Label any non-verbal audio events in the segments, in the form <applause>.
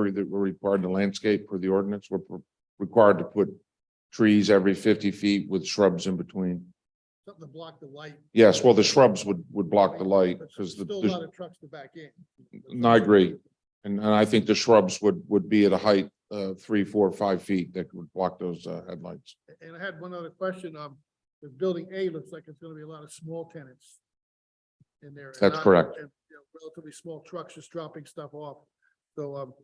we're that we're required to landscape for the ordinance, we're we're required to put trees every fifty feet with shrubs in between. Something to block the light. Yes, well, the shrubs would would block the light But because the, Still a the- lot of trucks to back in. no, I agree. And and I think the shrubs would would be at a height of three, four, five feet that would block those uh, headlights. And I had one other question, um, the building A looks like it's gonna be a lot of small tenants in there. and That's not- correct. and, you know, Relatively small trucks just dropping stuff off. So, um,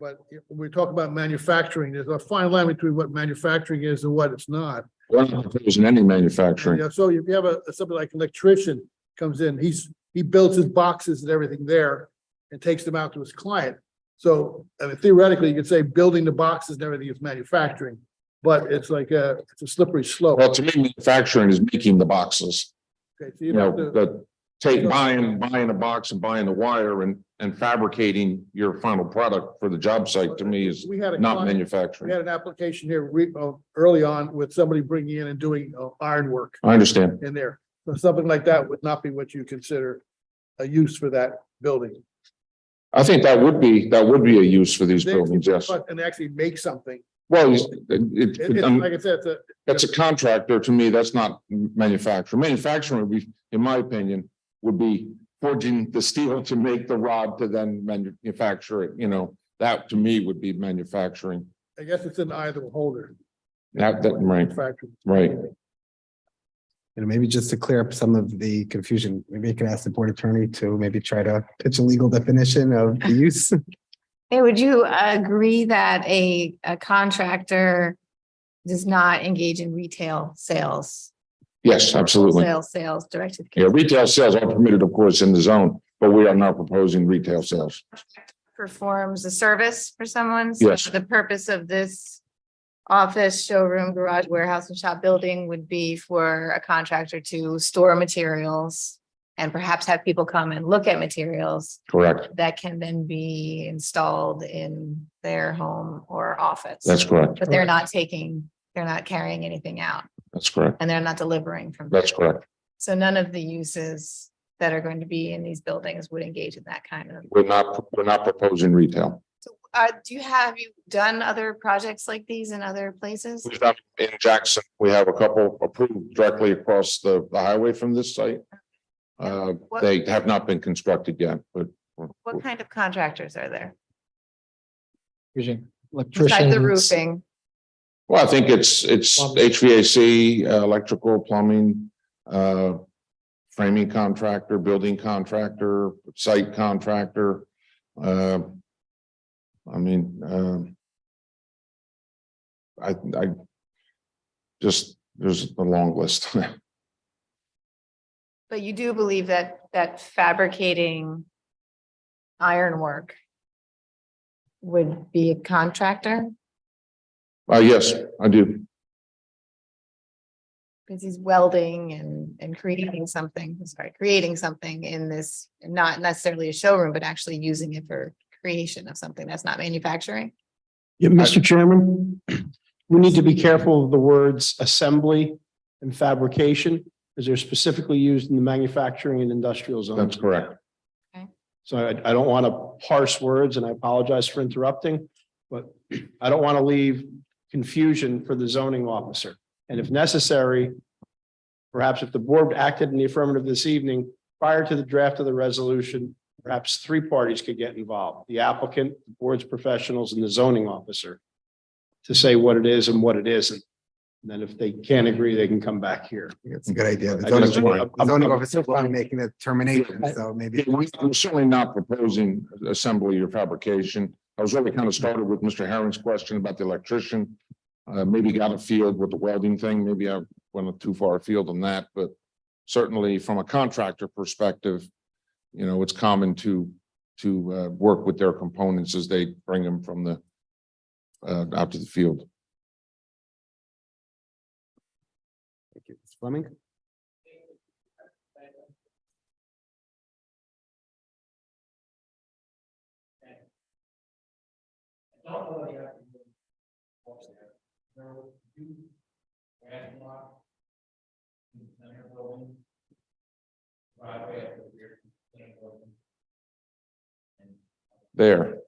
but if we talk about manufacturing, there's a fine line between what manufacturing is and what it's not. Well, it was in any manufacturing. Yeah, so if you have a, somebody like an electrician comes in, he's, he builds his boxes and everything there and takes them out to his client. So I mean, theoretically, you could say building the boxes and everything is manufacturing, but it's like a, it's a slippery slope. Well, to me, manufacturing is making the boxes, Okay, so you you'd know, have to, the take, buying, buying a box and buying the wire and, and fabricating your final product for the job site to me is we had a, not client- we manufacturing. had an application here re, uh, early on with somebody bringing in and doing uh, ironwork I understand. in there. So something like that would not be what you consider a use for that building. I think that would be, that would be a use for these They actually- buildings, yes. And actually make something. Well, it's- it, It- it, it's, um, like I said, it's a, that's a contractor. To me, that's not manufacturing. Manufacturing would be, in my opinion, would be forging the steel to make the rod to then manufacture it, you know, that to me would be manufacturing. I guess it's in the eye of the beholder. That, that, right, Factory. right. And maybe just to clear up some of the confusion, maybe you can ask the board attorney to maybe try to pitch a legal definition <laughs> of the use. Hey, would you agree that a, a contractor does not engage in retail sales? Yes, absolutely. Sales, sales directed. Yeah, retail sales are permitted, of course, in the zone, but we are not proposing retail sales. Performs a service for someone. So Yes. The purpose of this office, showroom, garage, warehouse and shop building would be for a contractor to store materials and perhaps have people come and look at materials Correct. that can then be installed in their home or office. That's correct. But they're not taking, they're not carrying anything out. That's correct. and they're not delivering from. there. That's correct. So none of the uses that are going to be in these buildings would engage in that kind of. We're not, we're not proposing retail. Uh, do you have, have you done other projects like these in other places? We've done in Jackson, we have a couple approved directly across the, the highway from this site. Uh, What- they have not been constructed yet, but What kind of contractors are there? Besides the Electricians, roofing, Well, I think it's, it's HVAC, uh, electrical, plumbing, uh, framing contractor, building contractor, site contractor. uh, I mean, um, I, I just, there's a long list. <laughs> but you do believe that, that fabricating ironwork would be a contractor? Uh, yes, I do. Because he's welding and, and creating something, sorry, creating something in this, not necessarily a showroom, but actually using it for creation of something that's not manufacturing. Yeah, Mr. Chairman, <clears throat> we need to be careful of the words assembly and fabrication, as they're specifically used in the manufacturing and industrial zone. That's correct. So I, I don't want to parse words, and I apologize for interrupting, but I don't want to leave confusion for the zoning officer. And if necessary, perhaps if the board acted in the affirmative this evening, prior to the draft of the resolution, perhaps three parties could get involved, the applicant, the board's professionals, and the zoning officer to say what it is and what it isn't. And then if they can't agree, they can come back here. it's a good idea. The I just- zoning- I'm- the I'm- zoning I'm- officer is not making a determination, so maybe. Yeah, we- I'm certainly not proposing assembly or fabrication. I was really kind of started with Mr. Herring's question about the electrician. Uh, maybe got afield with the welding thing. Maybe I went too far afield on that, but certainly from a contractor perspective, you know, it's common to, to, uh, work with their components as they bring them from the, uh, out to the field. Thank you. Mr. Fleming? There.